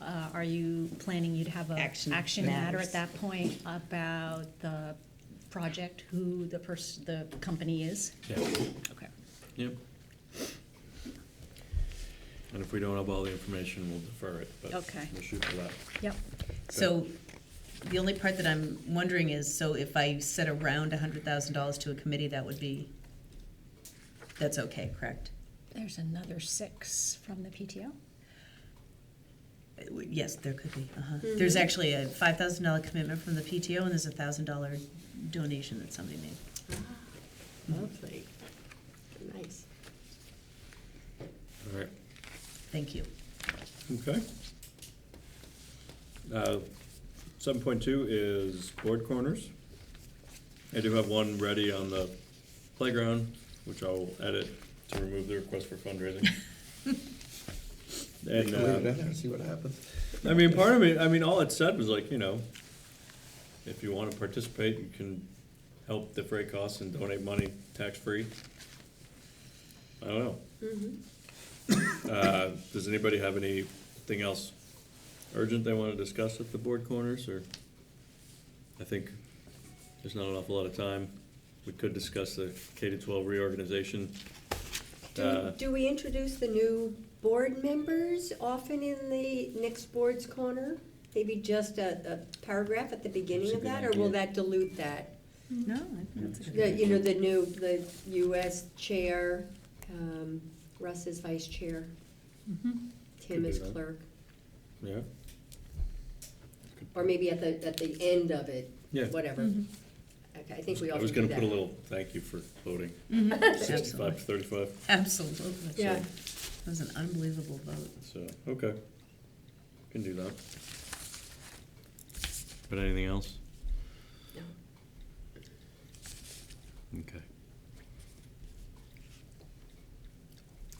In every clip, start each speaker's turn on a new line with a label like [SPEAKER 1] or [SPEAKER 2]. [SPEAKER 1] uh, are you planning, you'd have a
[SPEAKER 2] Action
[SPEAKER 1] action matter at
[SPEAKER 2] matters.
[SPEAKER 1] that point about the project, who the person, the company is?
[SPEAKER 3] Yeah,
[SPEAKER 1] Okay.
[SPEAKER 3] yep. And if we don't have all the information, we'll defer it, but
[SPEAKER 1] Okay.
[SPEAKER 3] we'll shoot for that.
[SPEAKER 1] Yep.
[SPEAKER 2] So the only part that I'm wondering is, so if I set around a hundred thousand dollars to a committee, that would be, that's okay, correct?
[SPEAKER 1] There's another six from the PTO?
[SPEAKER 2] Uh, w- Yes, there could be, uh-huh. There's actually a five thousand dollar commitment from the PTO and there's a thousand dollar donation that somebody made.
[SPEAKER 4] Ah, Lovely. Nice.
[SPEAKER 3] All right,
[SPEAKER 2] Thank you.
[SPEAKER 3] okay. Uh, Seven point two is board corners. I do have one ready on the playground, which I'll edit to remove the request for fundraising. And,
[SPEAKER 5] Leave it
[SPEAKER 3] uh,
[SPEAKER 5] in there and see what happens.
[SPEAKER 3] I mean, part of me, I mean, all it said was like, you know, if you wanna participate, you can help defray costs and donate money tax-free. I don't know.
[SPEAKER 4] Mm-hmm.
[SPEAKER 3] Uh, does anybody have anything else urgent they wanna discuss at the board corners, or? I think there's not an awful lot of time. We could discuss the K to twelve reorganization. Uh,
[SPEAKER 4] Do, do we introduce the new board members often in the next board's corner? Maybe just a, a paragraph at the beginning
[SPEAKER 3] That's a
[SPEAKER 4] of
[SPEAKER 3] good
[SPEAKER 4] that, or will
[SPEAKER 3] idea.
[SPEAKER 4] that dilute that?
[SPEAKER 2] No, I think that's a good
[SPEAKER 4] The, you know, the new, the US chair, um, Russ is vice chair, Tim
[SPEAKER 3] Could
[SPEAKER 4] is
[SPEAKER 3] do that.
[SPEAKER 4] clerk,
[SPEAKER 3] Yeah,
[SPEAKER 4] or maybe at the, at the end of it,
[SPEAKER 3] yeah.
[SPEAKER 4] whatever.
[SPEAKER 1] Mm-hmm.
[SPEAKER 3] Mm-hmm.
[SPEAKER 4] Okay, I think we all
[SPEAKER 3] I
[SPEAKER 4] should
[SPEAKER 3] was
[SPEAKER 4] do
[SPEAKER 3] gonna put a
[SPEAKER 4] that.
[SPEAKER 3] little thank you for voting. Sixty-five
[SPEAKER 2] Absolutely.
[SPEAKER 3] to thirty-five,
[SPEAKER 2] Absolutely.
[SPEAKER 4] Yeah.
[SPEAKER 2] That was an unbelievable vote.
[SPEAKER 3] so, okay, can do that. But anything else?
[SPEAKER 4] No.
[SPEAKER 3] Okay.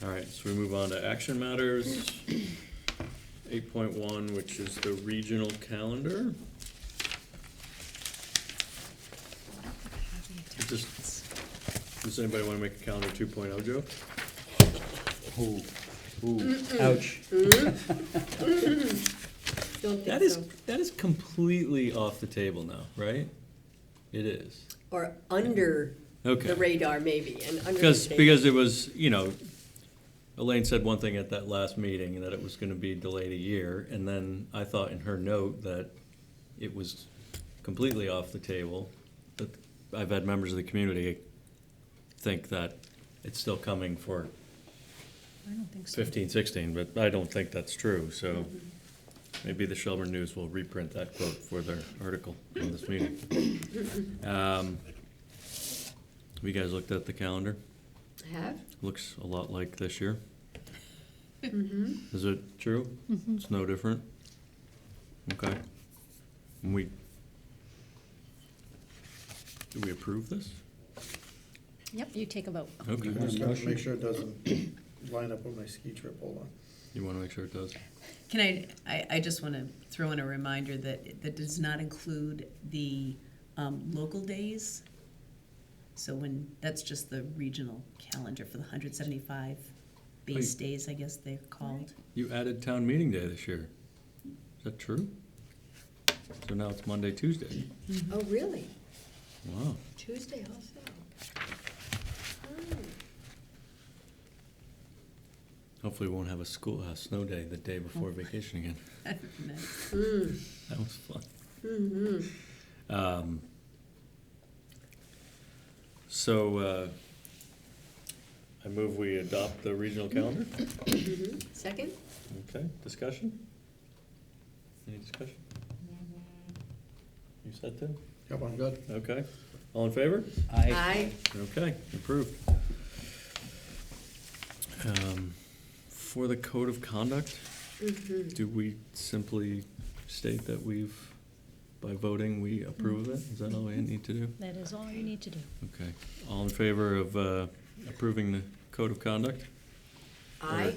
[SPEAKER 3] All right, so we move on to action matters. Eight point one, which is the regional calendar. Just- Does anybody wanna make a calendar two oh, joke?
[SPEAKER 6] Ooh, ooh, ouch.
[SPEAKER 4] Don't think
[SPEAKER 3] That is,
[SPEAKER 4] so.
[SPEAKER 3] that is completely off the table now, right? It is.
[SPEAKER 4] Or under
[SPEAKER 3] Okay.
[SPEAKER 4] the radar maybe, and under the
[SPEAKER 3] Because,
[SPEAKER 4] table.
[SPEAKER 3] because it was, you know, Elaine said one thing at that last meeting, that it was gonna be delayed a year, and then I thought in her note that it was completely off the table, but I've had members of the community think that it's still coming for
[SPEAKER 1] I don't think so.
[SPEAKER 3] fifteen, sixteen, but I don't think that's true, so maybe the Shelburne News will reprint that quote for their article on this meeting. Um, Have you guys looked at the calendar?
[SPEAKER 4] Have?
[SPEAKER 3] Looks a lot like this year. Is it true? It's no different? Okay. And we, do we approve this?
[SPEAKER 1] Yep, you take a vote.
[SPEAKER 3] Okay.
[SPEAKER 5] I just have to
[SPEAKER 6] Motion.
[SPEAKER 5] make sure it doesn't line up with my ski trip, hold on.
[SPEAKER 3] You wanna make sure it does?
[SPEAKER 2] Can I, I, I just want to throw in a reminder that, that does not include the um, local days. So when, that's just the regional calendar for the hundred seventy-five base
[SPEAKER 3] Wait.
[SPEAKER 2] days, I guess they're called.
[SPEAKER 3] You added town meeting day this year. Is that true? So now it's Monday, Tuesday.
[SPEAKER 4] Oh, really?
[SPEAKER 3] Wow.
[SPEAKER 4] Tuesday also?
[SPEAKER 3] Hopefully we won't have a school, a snow day the day before vacation again.
[SPEAKER 2] Nice.
[SPEAKER 3] That was fun.
[SPEAKER 4] Mm-hmm.
[SPEAKER 3] Um, so, uh, I move we adopt the regional calendar.
[SPEAKER 4] Mm-hmm. Second?
[SPEAKER 3] Okay, discussion? Any discussion? You said to?
[SPEAKER 5] Yep, I'm good.
[SPEAKER 3] Okay. All in favor?
[SPEAKER 6] I,
[SPEAKER 4] Aye.
[SPEAKER 3] Okay, approved. Um, for the code of conduct,
[SPEAKER 4] mm-hmm.
[SPEAKER 3] do we simply state that we've, by voting, we approve of it? Is that all we need to do?
[SPEAKER 1] That is all you need to do.
[SPEAKER 3] Okay, all in favor of uh, approving the code of conduct?
[SPEAKER 4] Aye.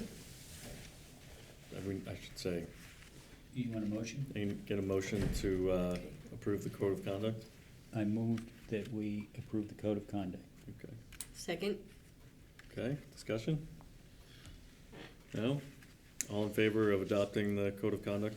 [SPEAKER 3] I mean, I should say,
[SPEAKER 6] you want a motion?
[SPEAKER 3] and get a motion to uh, approve the code of conduct?
[SPEAKER 6] I moved that we approve the code of conduct.
[SPEAKER 3] Okay,
[SPEAKER 4] Second?
[SPEAKER 3] okay, discussion? No? All in favor of adopting the code of conduct